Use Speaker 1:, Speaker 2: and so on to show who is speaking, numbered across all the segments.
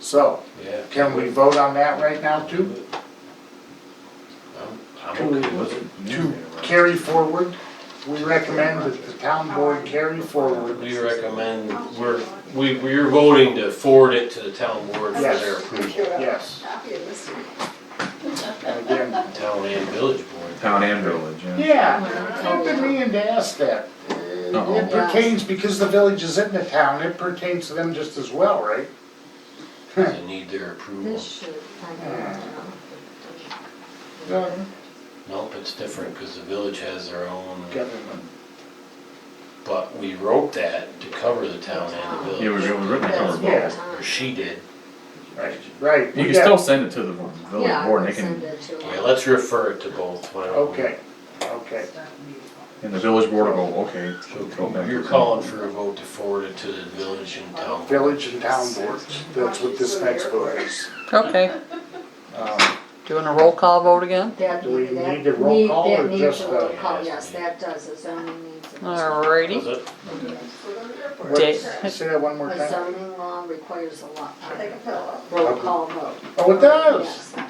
Speaker 1: So,
Speaker 2: Yeah.
Speaker 1: can we vote on that right now too?
Speaker 2: I'm- I'm okay with it.
Speaker 1: To carry forward, we recommend that the town board carry forward.
Speaker 2: We recommend, we're, we, we're voting to forward it to the town board for their
Speaker 1: Yes.
Speaker 2: approval.
Speaker 1: Yes,
Speaker 3: Copy of this.
Speaker 1: and again,
Speaker 2: Town and village board.
Speaker 4: Town and village, yeah.
Speaker 1: yeah, I've been meaning to ask that. Uh, It pertains, because the village is in the town, it pertains to them just as well, right?
Speaker 2: They need their approval.
Speaker 5: This should, I don't
Speaker 1: No,
Speaker 2: Nope, it's different because the village has their own,
Speaker 1: government.
Speaker 2: but we wrote that to cover the town and the
Speaker 4: Yeah, we
Speaker 2: village.
Speaker 4: were written to cover
Speaker 1: Yeah.
Speaker 4: both.
Speaker 2: Or she did.
Speaker 1: Right, right.
Speaker 4: You
Speaker 1: we
Speaker 4: can
Speaker 1: got-
Speaker 4: still send it to the
Speaker 5: Yeah,
Speaker 4: village
Speaker 5: I
Speaker 4: board,
Speaker 5: will
Speaker 4: they
Speaker 5: send
Speaker 4: can,
Speaker 5: it to
Speaker 2: Yeah,
Speaker 5: her.
Speaker 2: let's refer it to both. why don't we?
Speaker 1: Okay, okay.
Speaker 4: and the village board will go, okay. go
Speaker 2: So
Speaker 4: back
Speaker 2: you're
Speaker 4: to-
Speaker 2: calling for a vote to forward it to the village and town.
Speaker 1: Village and town boards, that's what this next vote is.
Speaker 6: Okay,
Speaker 1: Um,
Speaker 6: doing a roll call vote again?
Speaker 5: That,
Speaker 1: Do we
Speaker 5: that
Speaker 1: need a roll
Speaker 5: need-
Speaker 1: call
Speaker 5: that
Speaker 1: or
Speaker 5: needs
Speaker 1: just
Speaker 5: a
Speaker 1: the-
Speaker 5: roll call, yes, that does, a zoning needs. a-
Speaker 2: Does
Speaker 6: Alrighty,
Speaker 2: it?
Speaker 1: what-
Speaker 6: Dave.
Speaker 1: Say that one more
Speaker 5: A
Speaker 1: time.
Speaker 5: zoning law requires a lot,
Speaker 3: Take a pillow.
Speaker 5: roll call vote.
Speaker 1: Oh, it does.
Speaker 5: Yes,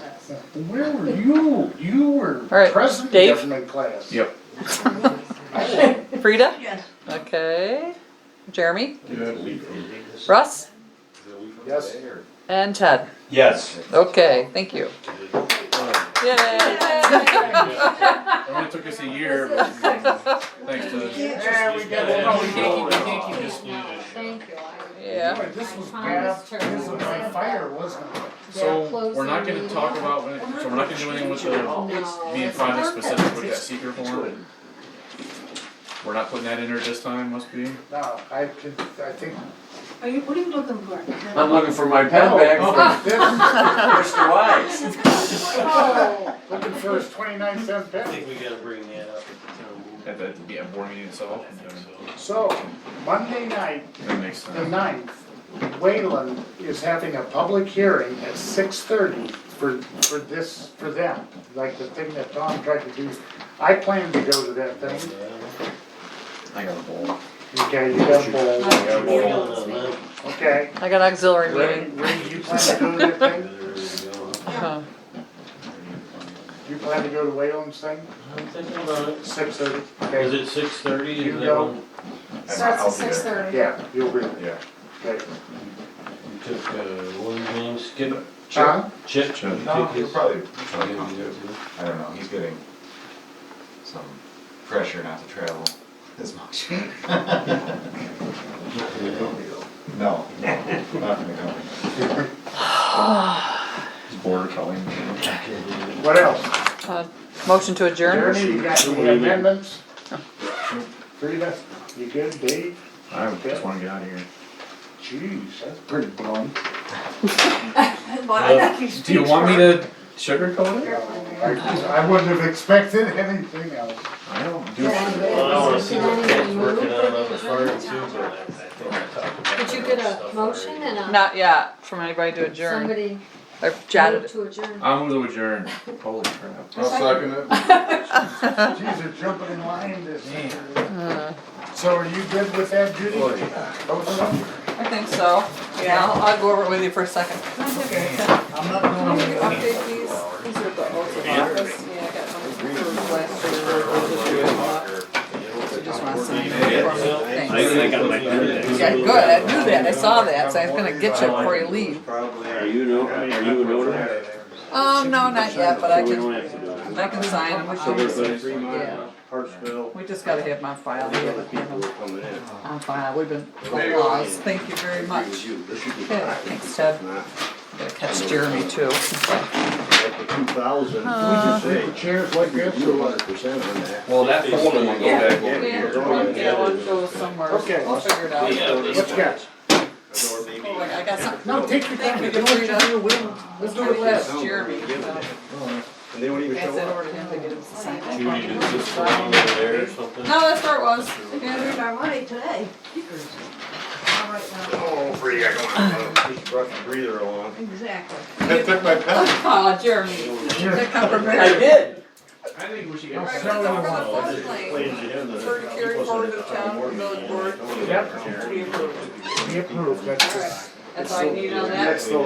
Speaker 5: it
Speaker 1: Where were you? You were
Speaker 6: right,
Speaker 1: president
Speaker 6: Dave?
Speaker 1: government class.
Speaker 4: Yep,
Speaker 6: Frida?
Speaker 3: Yes.
Speaker 6: Okay, Jeremy,
Speaker 2: Yes.
Speaker 6: Russ, and Ted.
Speaker 2: Yes.
Speaker 6: Okay, thank you. Yay!
Speaker 4: it only took us a year, but thanks to,
Speaker 1: Yeah, we got
Speaker 2: Yeah.
Speaker 1: it.
Speaker 2: Thank you.
Speaker 5: does. No, Thank you. I-
Speaker 6: Yeah,
Speaker 1: This was
Speaker 5: I
Speaker 1: bad.
Speaker 5: promised her
Speaker 1: This was on
Speaker 5: I would-
Speaker 1: fire, wasn't it?
Speaker 5: They're
Speaker 4: so, we're not
Speaker 5: closing
Speaker 4: gonna talk
Speaker 5: meeting.
Speaker 4: about, when it- so we're not gonna do anything with
Speaker 5: No,
Speaker 4: the,
Speaker 5: it's
Speaker 4: being finally
Speaker 5: perfect.
Speaker 4: specific with that secret form. We're not putting that in there this time, must be?
Speaker 1: No, I could, I think.
Speaker 3: Are you, what are you looking for?
Speaker 7: I'm looking for my pen back,
Speaker 1: Oh,
Speaker 7: Mr. Wise.
Speaker 1: oh, Looking for his twenty-nine cent
Speaker 2: I
Speaker 1: penny.
Speaker 2: think we gotta bring that up at the town board.
Speaker 4: At the, yeah, board meeting itself,
Speaker 2: I think so.
Speaker 1: So, Monday night,
Speaker 4: that makes
Speaker 1: the
Speaker 4: sense.
Speaker 1: ninth, Wayland is having a public hearing at six thirty for, for this, for them. Like the thing that Tom tried to do. I plan to go to that thing.
Speaker 4: I got a bowl.
Speaker 1: Okay, you uh, got the,
Speaker 4: I got a bowl.
Speaker 1: okay.
Speaker 6: I got auxiliary
Speaker 1: Ray,
Speaker 6: meeting. Uh-huh.
Speaker 1: Ray, you plan to go to that thing?
Speaker 6: Huh.
Speaker 1: You plan to go to Wayland's thing?
Speaker 2: I'm thinking about it.
Speaker 1: Six thirty?
Speaker 2: Is
Speaker 1: Okay,
Speaker 2: it six thirty?
Speaker 1: You go.
Speaker 3: Starts
Speaker 4: I'll
Speaker 3: at
Speaker 4: be there.
Speaker 3: six thirty.
Speaker 1: yeah, you'll be,
Speaker 4: Yeah.
Speaker 1: okay.
Speaker 2: You took, uh, what was his name, Skip?
Speaker 1: Huh?
Speaker 2: Chip?
Speaker 4: Chip.
Speaker 2: You took his-
Speaker 8: I don't know, he's getting some pressure not to travel as much. No, no, not from the company.
Speaker 4: It's border Kelly.
Speaker 1: What else?
Speaker 6: Uh, Motion to adjourn?
Speaker 1: Jeremy, you got any amendments? Frida, you good, Dave?
Speaker 4: I just wanna get out of here.
Speaker 1: Jeez, that's pretty blunt.
Speaker 3: Well, I think you
Speaker 4: Do you want me to sugarcoat it?
Speaker 1: I I wouldn't have expected anything else.
Speaker 4: I don't do.
Speaker 5: Yeah,
Speaker 4: sugarcoat.
Speaker 2: Well, I wanna see what Ted's
Speaker 5: Can I
Speaker 2: working on on the
Speaker 5: remove?
Speaker 2: farm too, but I I think I talked about
Speaker 5: Did you
Speaker 2: that
Speaker 5: get a
Speaker 2: stuff
Speaker 5: motion
Speaker 2: already.
Speaker 5: and a?
Speaker 6: Not yet, from anybody to adjourn.
Speaker 5: Somebody
Speaker 6: I've jotted
Speaker 5: moved
Speaker 6: it.
Speaker 5: to adjourn.
Speaker 4: I'm going to adjourn. Holy crap.
Speaker 7: I'll second it.
Speaker 1: Jeez, they're jumping in line this So are you good with that, Judy? Oh, Both of them?
Speaker 6: I think so. Yeah, I'll- I'll go over it with you for a second.
Speaker 1: I'm not going to.
Speaker 6: Update these, these are the oaths of office. Yeah, I got some from last year, or this year, if not. So just wanna sign it. Thanks.
Speaker 2: I got my pen
Speaker 6: Yeah, good, I knew that, I saw that, so I was gonna get you before you leave.
Speaker 7: Are you no, are you an owner?
Speaker 6: Um, no, not yet, but I
Speaker 7: We
Speaker 6: can,
Speaker 7: don't have to do it.
Speaker 6: I can sign them.
Speaker 7: So there's like three
Speaker 6: Yeah.
Speaker 7: mile, Hartsville,
Speaker 6: We just gotta have my file, we
Speaker 7: the other
Speaker 6: haven't had
Speaker 7: people
Speaker 6: them
Speaker 7: who are coming in.
Speaker 6: on file, we've been applause, thank you very much.
Speaker 7: You, this should be
Speaker 6: Okay,
Speaker 7: fine.
Speaker 6: thanks, Ted.
Speaker 7: Not
Speaker 6: Gotta catch Jeremy too.
Speaker 7: Like the two thousand.
Speaker 1: Chairs like this?
Speaker 7: Two hundred percent on that.
Speaker 4: Well, that folder will go back
Speaker 7: Yeah.
Speaker 4: over
Speaker 7: Yeah.
Speaker 4: here.
Speaker 7: one- yeah, one
Speaker 6: goes
Speaker 7: goes
Speaker 6: somewhere,
Speaker 1: Okay.
Speaker 6: I'll
Speaker 1: I'll
Speaker 6: figure it out.
Speaker 2: Yeah, this
Speaker 1: What you got?
Speaker 7: Or maybe-
Speaker 6: I got something,
Speaker 1: No, take your time, you know
Speaker 6: Thank you,
Speaker 1: what you're
Speaker 6: Frida.
Speaker 1: doing, we'll, we'll
Speaker 6: let's
Speaker 1: do it
Speaker 6: last
Speaker 1: last.
Speaker 7: last.
Speaker 6: Jeremy,
Speaker 7: Jeremy, so And they won't even
Speaker 6: pass
Speaker 7: show
Speaker 6: that
Speaker 7: up.
Speaker 6: over to him to get him to sign it.
Speaker 2: Judy, did this fall over there or something?
Speaker 6: No, that's where it was.
Speaker 3: Earned our money today. All right, now.
Speaker 7: Oh, free, I don't know. Just brush the breather along.
Speaker 3: Exactly.
Speaker 7: I took my pen.
Speaker 6: Aw, Oh, Jeremy, did that come from her?
Speaker 2: did.
Speaker 4: I think we should
Speaker 6: Right,
Speaker 4: get.
Speaker 6: so from the flood plain,
Speaker 7: For
Speaker 6: for to carry forward to the town, village board.
Speaker 1: We approve, that's just.
Speaker 6: That's all you need on that?
Speaker 1: That's the